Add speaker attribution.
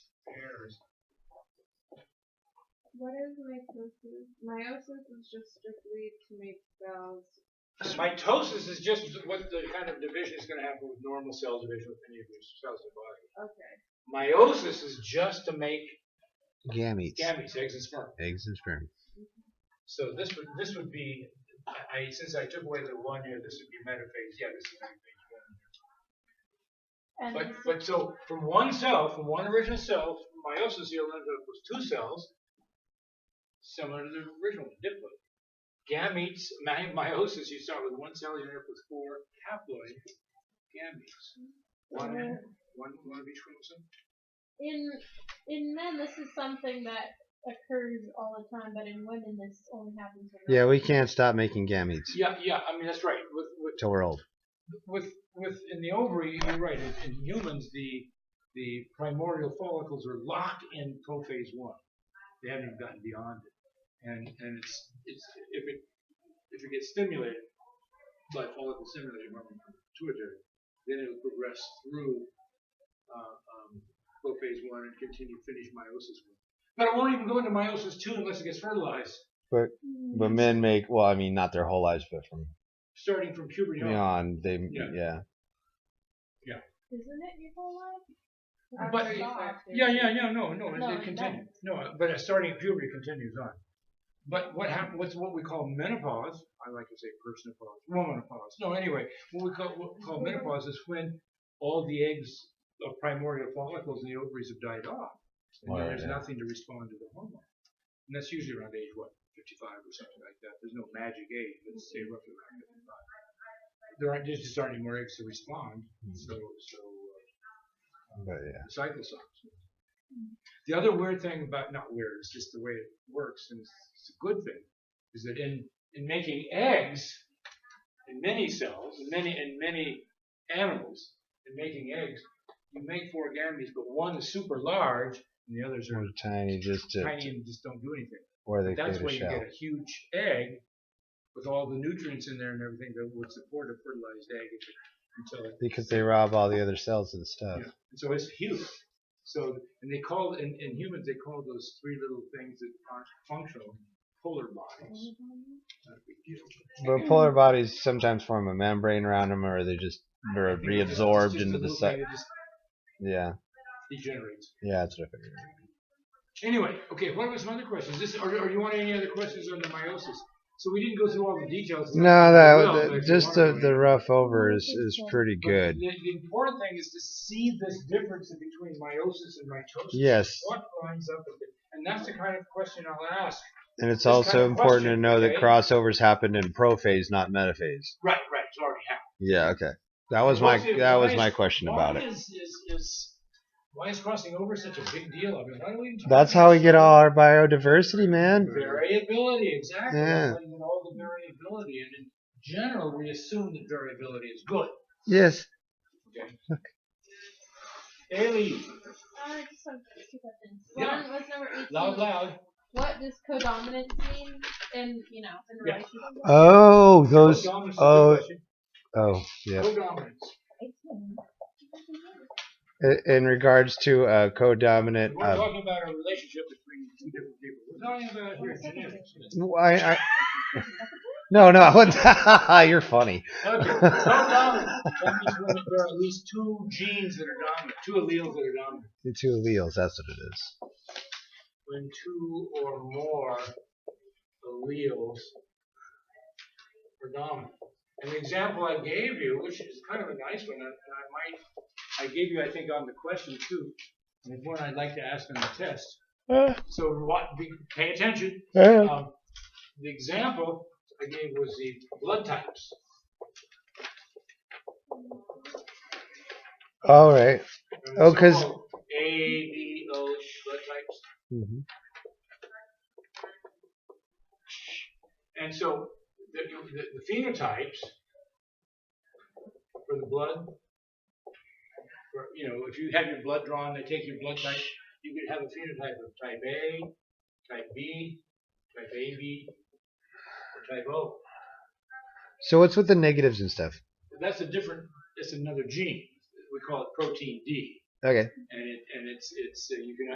Speaker 1: What is meiosis? Meiosis is just strictly to make cells.
Speaker 2: Mitosis is just what the kind of division is going to happen with normal cell division with any of your cells in the body.
Speaker 1: Okay.
Speaker 2: Meiosis is just to make
Speaker 3: Gametes.
Speaker 2: gametes, eggs and sperm.
Speaker 3: Eggs and sperm.
Speaker 2: So this would this would be, I I- since I took away the one here, this would be metaphase. Yeah, this is metaphase one.
Speaker 1: And
Speaker 2: But,
Speaker 1: this-
Speaker 2: but so from one cell, from one original cell, meiosis here ends up with two cells, similar to the original one, diploid. Gametes, my, meiosis, you start with one cell, you end up with four haploid gametes. One,
Speaker 1: Yeah.
Speaker 2: one, one of each chromosome.
Speaker 1: in in men, this is something that occurs all the time, but in women, this only happens. When
Speaker 3: Yeah, we can't stop making gametes
Speaker 2: Yeah, yeah. I mean that's right. With with
Speaker 3: till we're old.
Speaker 2: with with in the ovary, you're right. In, in humans, the the primordial follicles are locked in prophase one. They haven't even gotten beyond it, and and it's it's if it if it gets stimulated by follicle stimulated by pituitary, then it'll progress through uh, um, prophase one and continue finish meiosis one. But it won't even go into meiosis two unless it gets fertilized,
Speaker 1: Mm.
Speaker 3: But men make well, I mean, not their whole lives, but from
Speaker 2: starting from puberty on.
Speaker 3: beyond, they yeah.
Speaker 2: Yeah.
Speaker 1: Isn't it your whole life?
Speaker 2: But
Speaker 1: Or
Speaker 2: yeah,
Speaker 1: soft,
Speaker 2: yeah,
Speaker 1: isn't it?
Speaker 2: yeah, no, no,
Speaker 1: No,
Speaker 2: it, it
Speaker 1: it
Speaker 2: continues. No, but uh, starting at puberty continues on. But what happened? What's what we call menopause? I like to say personopause, womanopause. No, anyway, what we call what we call menopause is when all the eggs of primordial follicles in the ovaries have died off, and then
Speaker 3: Right,
Speaker 2: there's
Speaker 3: yeah.
Speaker 2: nothing to respond to the hormone. And that's usually around age what, 55 or something like that. There's no magic age. Let's say roughly around 55. There aren't there just aren't any more eggs to respond.
Speaker 3: Hmm.
Speaker 2: So so. Uh,
Speaker 3: But yeah.
Speaker 2: cycle songs. The other weird thing about not weird, it's just the way it works, and it's, it's a good thing, is that in in making eggs, in many cells, in many in many animals, in making eggs, you make four gametes, but one is super large, and the others are
Speaker 3: They're tiny, just to,
Speaker 2: tiny and just don't do anything.
Speaker 3: where they
Speaker 2: But that's
Speaker 3: create
Speaker 2: why you
Speaker 3: a shell.
Speaker 2: get a huge egg with all the nutrients in there and everything that would support a fertilized egg if it, until it
Speaker 3: Because they rob all the other cells and stuff.
Speaker 2: yeah. And so it's huge. So and they call in, in humans they call those three little things that aren't functional polar bodies. Not a big deal.
Speaker 3: But polar bodies sometimes form a membrane around them, or they just they're
Speaker 2: You know, it's just- it's
Speaker 3: reabsorbed
Speaker 2: just
Speaker 3: into
Speaker 2: a
Speaker 3: the
Speaker 2: little
Speaker 3: cell.
Speaker 2: thing that just
Speaker 3: Yeah,
Speaker 2: degenerates.
Speaker 3: yeah, that's what I figured.
Speaker 2: Anyway, okay. What were some other questions? This or, or you want any other questions on the meiosis? So we didn't go through all the details.
Speaker 3: No, that
Speaker 2: Well, but
Speaker 3: the,
Speaker 2: if you
Speaker 3: just
Speaker 2: wanna
Speaker 3: the,
Speaker 2: go
Speaker 3: the
Speaker 2: in.
Speaker 3: rough over is, is pretty
Speaker 2: But
Speaker 3: good.
Speaker 2: The, the important thing is to see this difference in between meiosis and mitosis.
Speaker 3: Yes,
Speaker 2: What lines up with it? And that's the kind of question I'll ask.
Speaker 3: and it's
Speaker 2: this kind
Speaker 3: also
Speaker 2: of
Speaker 3: important to
Speaker 2: question,
Speaker 3: know that
Speaker 2: okay?
Speaker 3: crossovers happened in prophase, not metaphase.
Speaker 2: Right, right. It's already happened.
Speaker 3: Yeah, okay. That was my
Speaker 2: Well, see,
Speaker 3: that
Speaker 2: why
Speaker 3: was
Speaker 2: is-
Speaker 3: my question about
Speaker 2: why
Speaker 3: it.
Speaker 2: Is, is, is, why is crossing over such a big deal? I mean, why do we even talk
Speaker 3: That's
Speaker 2: about
Speaker 3: how we
Speaker 2: this?
Speaker 3: get all our biodiversity, man.
Speaker 2: variability. Exactly. That's
Speaker 3: Yeah.
Speaker 2: how you get all the variability, and in general, we assume that variability is good.
Speaker 3: Yes.
Speaker 2: Okay. Ailey,
Speaker 1: Uh, just some two questions.
Speaker 2: Yeah.
Speaker 1: One was number eighteen.
Speaker 2: loud, loud.
Speaker 1: What does codominance mean? In you know, in
Speaker 2: Yeah.
Speaker 1: relation to
Speaker 3: Oh, those.
Speaker 2: Codominance is the
Speaker 3: oh,
Speaker 2: question.
Speaker 3: Oh, yeah.
Speaker 2: Codominance.
Speaker 3: I- In regards to uh,
Speaker 2: We're
Speaker 3: codominant, uh,
Speaker 2: talking about a relationship between two different people. We're talking about your genetics.
Speaker 3: I, I, no, no, I wouldn't- you're funny.
Speaker 2: Okay, codominance. That means when there are at least two genes that are dominant, two alleles that are dominant.
Speaker 3: The two alleles, that's what it is.
Speaker 2: when two or more alleles are dominant. And the example I gave you, which is kind of a nice one, and and I might, I gave you, I think, on the question too, and it's one I'd like to ask on the test. So what, be, pay attention. Um, the example I gave was the blood types.
Speaker 3: All right.
Speaker 2: And
Speaker 3: Oh, 'cause-
Speaker 2: so-called A, B, O blood types.
Speaker 3: Mhm.
Speaker 2: And so the, the, the phenotypes for the blood, for, you know, if you have your blood drawn, they take your blood type, you could have a phenotype of type A, type B, type AB, or type O.
Speaker 3: So what's with the negatives and stuff?
Speaker 2: That's a different, that's another gene. We call it protein D.
Speaker 3: Okay.
Speaker 2: And, it, and it's, it's uh, you can